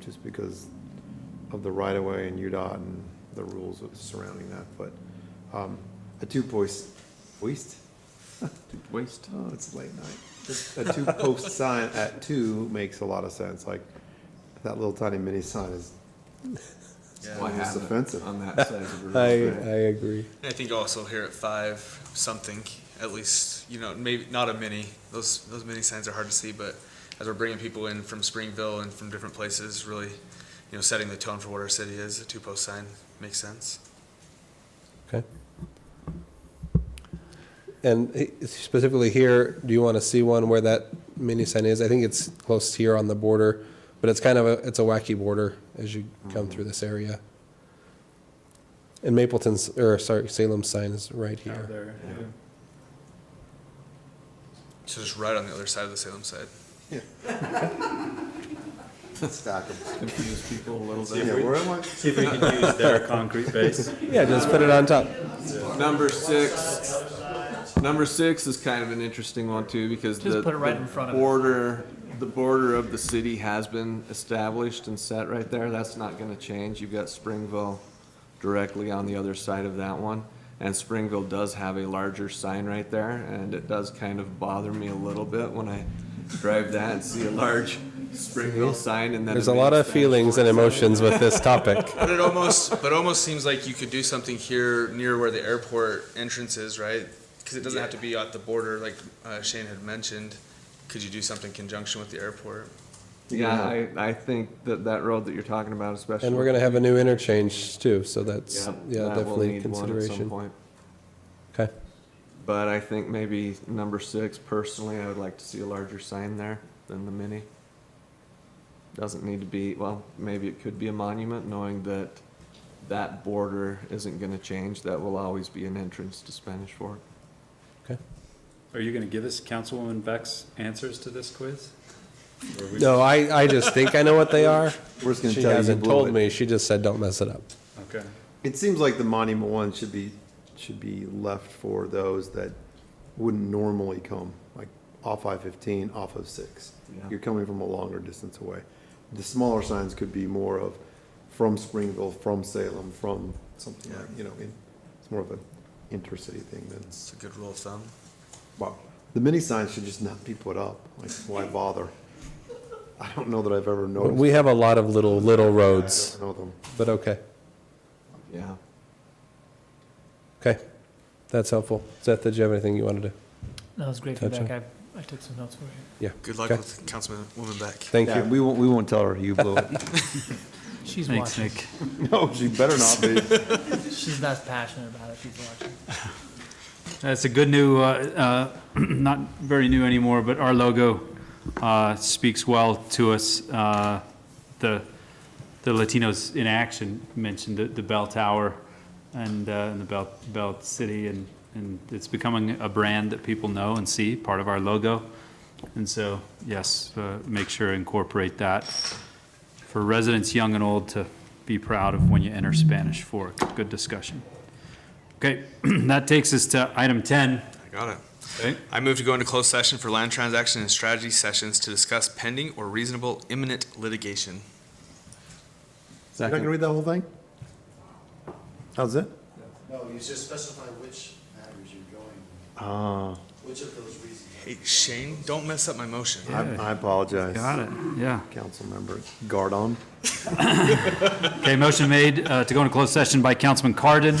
just because of the right-of-way and UDOT and the rules surrounding that, but um, a two-post, waste? Waste. Oh, it's late night. A two-post sign at two makes a lot of sense, like, that little tiny mini sign is, Why It's have it offensive. on that side of the I, I road? agree. I think also here at five something, at least you know maybe not a mini. Those those mini signs are hard to see, but as we're bringing people in from Springville and from different places, really, you know, setting the tone for what our city is. A two post sign makes sense. Okay. And he- specifically here, do you want to see one where that mini sign is? I think it's close here on the border, but it's kind of a, it's a wacky border as you come through this area. And Mapleton's, or sorry, Salem's sign is right here. there. So just right on the other side of the Salem side. stack 'em. Confuse people a little Yeah, bit. where am I? See if we can use their concrete base. Yeah, just put it on top. Number six. Number six is kind of an interesting one too because Just the, put it right the in front of it. border, the border of the city has been established and set right there. That's not going to change. You've got Springville directly on the other side of that one, and Springville does have a larger sign right there, and it does kind of bother me a little bit when I drive that and see a large Springville sign and then There's a lot of feelings. feelings and emotions with this topic. But it almost but it almost seems like you could do something here near where the airport entrance is, right? Because it doesn't have to be at the border, like uh, Shane had mentioned. Could you do something in conjunction with the airport? Yeah, I, I think that that road that you're talking about especially. And we're going to have a new interchange too, so that's, Yep, yeah, that will definitely need one at some consideration. point. Okay. But I think maybe number six, personally, I would like to see a larger sign there than the mini. Doesn't need to be, well, maybe it could be a monument, knowing that that border isn't gonna change. That will always be an entrance to Spanish Fork. Are you gonna give us Councilwoman Beck's answers to this quiz? Or we- No, I, I just think I know what they are. We're just gonna She tell you you hasn't blew told it. me. She just said, don't mess it up. Okay. It seems like the monument one should be, should be left for those that wouldn't normally come, like off I-15, off of 6. Yeah. You're coming from a longer distance away. The smaller signs could be more of from Springville, from Salem, from something like, you know, in- it's more of an intercity thing than, It's a good rule of thumb. wow. The mini signs should just not be put up, like, why bother? I don't know that I've ever But noticed. we have a lot of little, little I roads, don't know them. but okay. Yeah. Okay. That's helpful. Seth, did you have anything you wanted to? That was great Gotcha. feedback. I, I took some notes for you. Yeah. Good luck Okay. with Councilwoman Beck. Thank Yeah, you. we won't, we won't tell her you blew it. She's Thanks, watching. Nick. No, she better not be. She's not as passionate about it. She's watching. That's a good new, uh, uh, not very new anymore, but our logo uh, speaks well to us. Uh, The the Latinos in Action mentioned the- the bell tower and uh, and the bell, bell city, and and it's becoming a brand that people know and see, part of our logo. And so, yes, uh, make sure to incorporate that for residents young and old to be proud of when you enter Spanish Fork. Good discussion. Okay, that takes us to item 10. I got it. Okay. I move to go into closed session for land transaction and strategy sessions to discuss pending or reasonable imminent litigation. You're not gonna Second, read that whole thing? How's it? No, you just specify which matters you're going, Uh, which of those reasons. Hey, Shane, don't mess up my motion. I I apologize, Got it, yeah. Councilmember Gardon. Okay, motion made uh, to go into closed session by Councilman Cardon.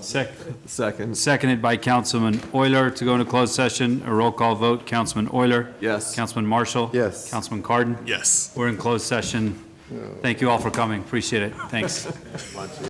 Sec- second, Seconded by Councilman Euler to go into closed session. A roll call vote, Councilman Euler. Yes. Councilman Marshall. Yes. Councilman Cardon. Yes. We're in closed session. Thank you all for coming, appreciate it, thanks.